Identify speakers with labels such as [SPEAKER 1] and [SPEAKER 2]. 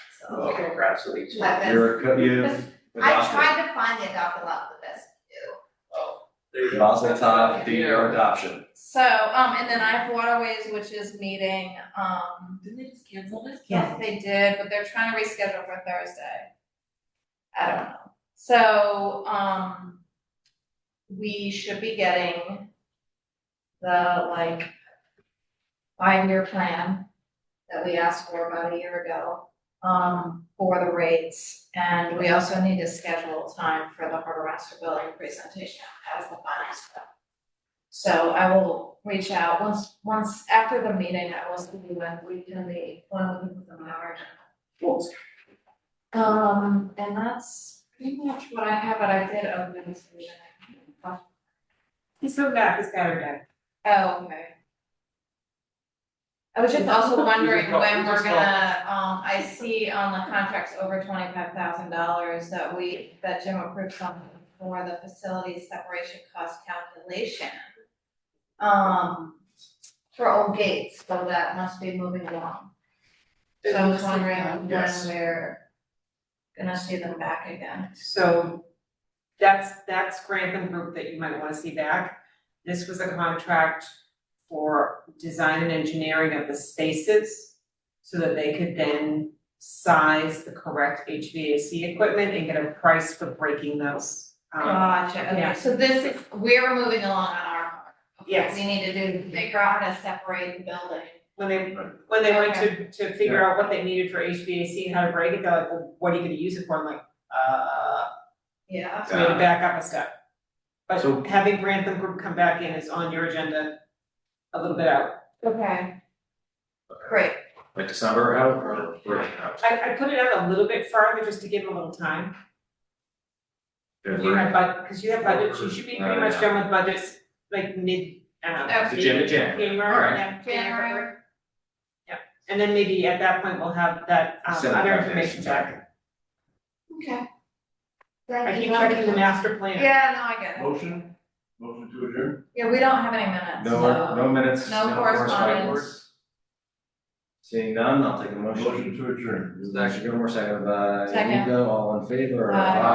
[SPEAKER 1] uh,
[SPEAKER 2] paragraphs of each.
[SPEAKER 3] Like this.
[SPEAKER 1] you're, co- you've
[SPEAKER 3] I
[SPEAKER 1] adopted,
[SPEAKER 3] tried to find the adopt a lot the best do.
[SPEAKER 2] Oh, there you go.
[SPEAKER 1] Basel Tov, the year of adoption.
[SPEAKER 3] So, um, and then I have waterways, which is meeting, um,
[SPEAKER 4] Didn't they just cancel this?
[SPEAKER 3] yes, they did, but they're trying to reschedule for Thursday. I don't know. So, um, we should be getting the like five-year plan that we asked for about a year ago, um, for the rates. And we also need to schedule time for the harbor master building presentation as the final step. So I will reach out once, once after the meeting, I will see when we can be, when we can put them on our agenda. Um, and that's pretty much what I have, but I did open this meeting.
[SPEAKER 4] He's coming back, he's got her back.
[SPEAKER 3] Oh, okay. I was just also
[SPEAKER 2] We just
[SPEAKER 3] wondering
[SPEAKER 2] got- we
[SPEAKER 3] when we're
[SPEAKER 2] just got-
[SPEAKER 3] gonna, um, I see on the contracts over twenty-five thousand dollars that we, that Jim approved something for the facility separation cost calculation. Um, for old gates, so that must be moving along. So I was wondering when
[SPEAKER 1] Yes.
[SPEAKER 3] we're gonna see them back again.
[SPEAKER 4] So that's, that's Grantham Group that you might wanna see back. This was a contract for design and engineering of the spaces so that they could then size the correct HVAC equipment and get a price for breaking those. Um,
[SPEAKER 3] Gotcha,
[SPEAKER 4] yeah.
[SPEAKER 3] okay, so this is, we're moving along on our part. Okay,
[SPEAKER 4] Yes.
[SPEAKER 3] We need to do, figure out how to separate the building.
[SPEAKER 4] when they, when they went to, to figure out what they needed for HVAC and how to break it, they're like, well, what are you gonna use it for? I'm like, uh,
[SPEAKER 3] Yeah.
[SPEAKER 4] So we had to back up a step.
[SPEAKER 1] Uh, So-
[SPEAKER 4] But having Grantham Group come back in is on your agenda a little bit out.
[SPEAKER 3] Okay. Great,
[SPEAKER 1] Like December out or we're out?
[SPEAKER 4] I, I put it out a little bit farther just to give them a little time. You have bud, because you have budgets, you should be pretty much done with budgets like mid, um,
[SPEAKER 3] Okay.
[SPEAKER 1] Uh, The January, January.
[SPEAKER 4] January, yeah, January.
[SPEAKER 3] January,
[SPEAKER 4] And then maybe at that point, we'll have that, um,
[SPEAKER 1] Send
[SPEAKER 4] other
[SPEAKER 1] back
[SPEAKER 4] information
[SPEAKER 1] next
[SPEAKER 4] back.
[SPEAKER 3] okay.
[SPEAKER 4] I keep checking the master plan.
[SPEAKER 3] Yeah, no, I get it.
[SPEAKER 5] Motion, motion to adjourn?
[SPEAKER 3] Yeah, we don't have any minutes,
[SPEAKER 1] No,
[SPEAKER 3] so.
[SPEAKER 1] no minutes,
[SPEAKER 3] No
[SPEAKER 1] no
[SPEAKER 3] correspondence.
[SPEAKER 1] corresponding words. Seeing none, I'll take a motion.
[SPEAKER 5] Motion to adjourn.
[SPEAKER 1] This is actually Gilmore, second by
[SPEAKER 3] Second.
[SPEAKER 1] Nico, all in favor?
[SPEAKER 3] Aye.